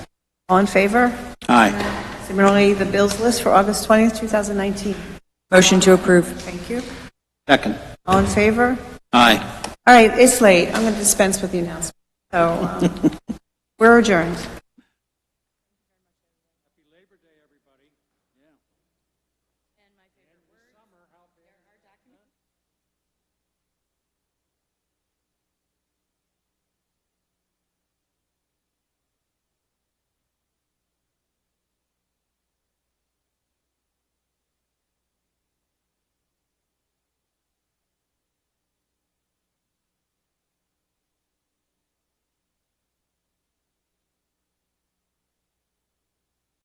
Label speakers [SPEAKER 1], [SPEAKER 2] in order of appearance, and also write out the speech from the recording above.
[SPEAKER 1] All in favor?
[SPEAKER 2] Aye.
[SPEAKER 1] Similarly, the bills list for August 20th, 2019.
[SPEAKER 3] Motion to approve.
[SPEAKER 1] Thank you.
[SPEAKER 2] Second.
[SPEAKER 1] All in favor?
[SPEAKER 2] Aye.
[SPEAKER 1] All right, it's late. I'm going to dispense with the announcement. So um, we're adjourned.